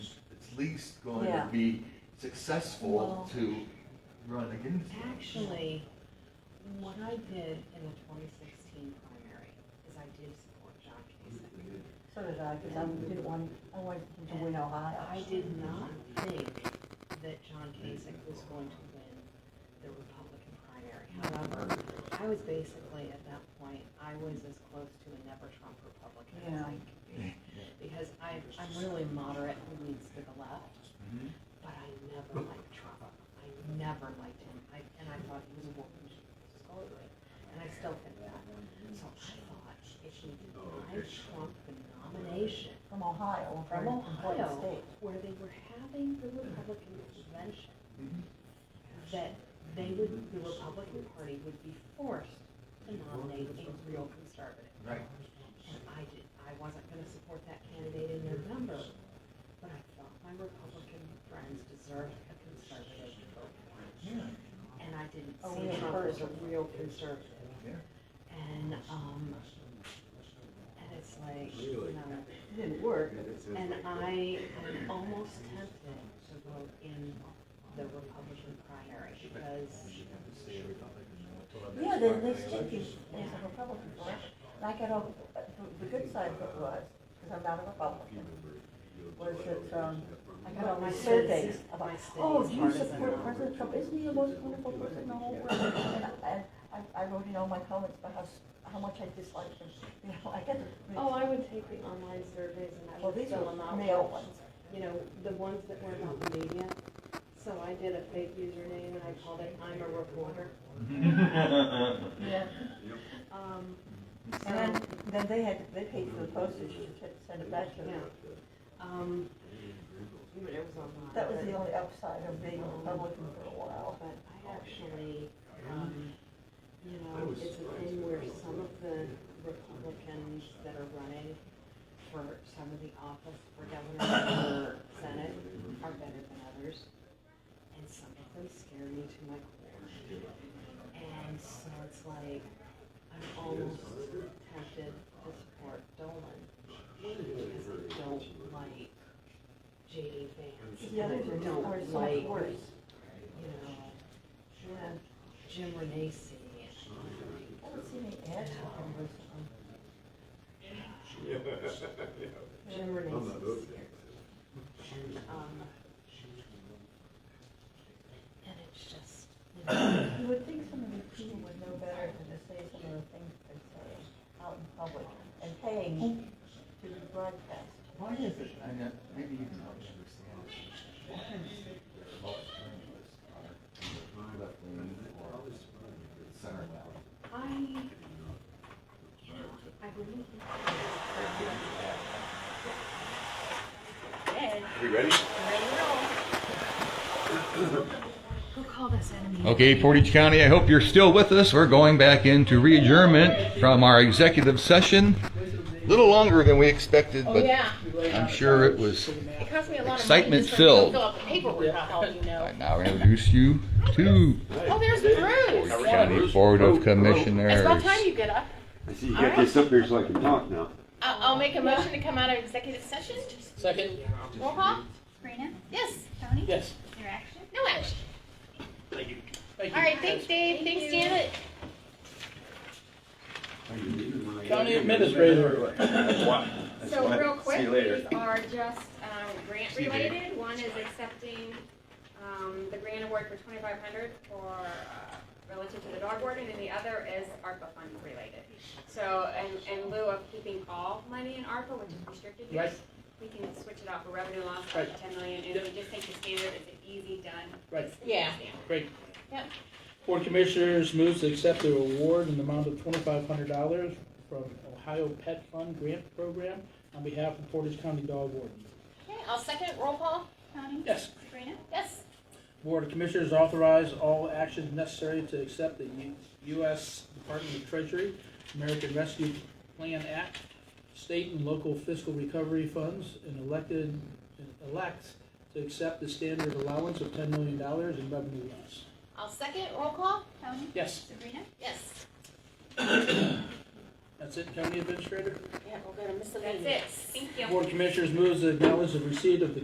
least going to Yeah. be successful Well- to run against them. Actually, what I did in the twenty sixteen primary is I did support John Kasich. So did I, because I didn't want, I wanted him to win Ohio. I did not think that John Kasich was going to win the Republican primary. However, I was basically, at that point, I was as close to a never Trump Republican as I could be. Because I, I'm really moderate who leans to the left, Mhm. but I never liked Trump. I never liked him. I, and I thought he was a woman scolded. And I still think that. So I thought if he denied Trump the nomination, From Ohio, a from very important Ohio, state. where they were having the Republican convention, Mhm. that they would, the Republican Party would be forced to nominate a real conservative. Right. And I did, I wasn't gonna support that candidate in November, but I thought my Republican friends deserved a conservative to vote for. Yeah. And I didn't A see real Trump as a person. real conservative. Yeah. And, um, and it's like, you know, It Didn't work. and I am almost tempted to vote in the Republican primary because, Yeah, they, they stick you as a Republican, right? And I got all, the, the good side of it was, because I'm not a Republican, was that, um, I got all my surveys about, My city's oh, do you partisan. support President Trump? Isn't he the most wonderful person in the whole world? And I- And I, I wrote in all my comments about how, s- how much I disliked him, you know, I got the. oh, I would take the online surveys and I Well, would these fill were them out. male with, ones. You know, the ones that were about the media. So I did a fake username and I called it I'm a reporter. Yeah. Um, And so, then, then they had, they paid for the postage to t- send it back to them. yeah. Um, but it was online. That was but- the only upside of being a Republican for a while. But I actually, um, you know, it's a thing where some of the Republicans that are running for some of the office for governor or senate are better than others. And some of them scare me to my core. And so it's like, I'm almost tempted to support Dolan because I don't like JD Vance. The others I are don't are so like much worse. you know, yeah, Jim Renacci. I haven't seen any ads for him recently. Jim Renacci's here. Um, and it's just, you know, You would think some of these people would know better than to say some of the things they say out in public and paying to be broadcast. Why is it, I know, maybe you can help me understand this. Why is it that most journalists are left wing or center left? I, you know, I really, We ready? who called us enemy? Okay, Portage County, I hope you're still with us. We're going back into re-adjournment from our executive session. A little longer than we expected, Oh, but yeah. I'm sure it was. It cost me a lot of money Excitement just to go filled. fill out the paperwork on all you know. I now introduce you to Oh, there's Bruce. Portage County Board of It's about Commissioners. time you get up. I see you got this up here so I can talk now. Uh, I'll, I'll make a motion to come out of executive session. Second? Roll call. Sabrina, Yes. Tony, Yes. your action. No action. Thank you. Thank All you. right. Thanks, Dave. Thanks, Janet. County Administrator. So real quick, these are just um, grant related. One is accepting um, the grant award for 2,500 for uh, relative to the dog warden, and the other is ARPA fund related. So in in lieu of keeping all money in ARPA, which is restricted Right. use, we can switch it out for revenue loss up to 10 million, and we just take the standard, it's an easy done. Right. Yeah. Great. Yep. Board of Commissioners moves to accept the award in the amount of twenty-five hundred dollars from Ohio Pet Fund Grant Program on behalf of Portage County Dog Warden. Okay, I'll second. Roll call. Tony, Yes. Sabrina, Yes. Board of Commissioners authorize all actions necessary to accept the U- U.S. Department of Treasury, American Rescue Plan Act, state and local fiscal recovery funds, and elected, and elects to accept the standard allowance of ten million dollars in revenue loss. I'll second. Roll call. Tony, Yes, Sabrina, Yes. that's it, County Administrator. That's it. Thank you. Board of Commissioners moves to acknowledge the receipt of the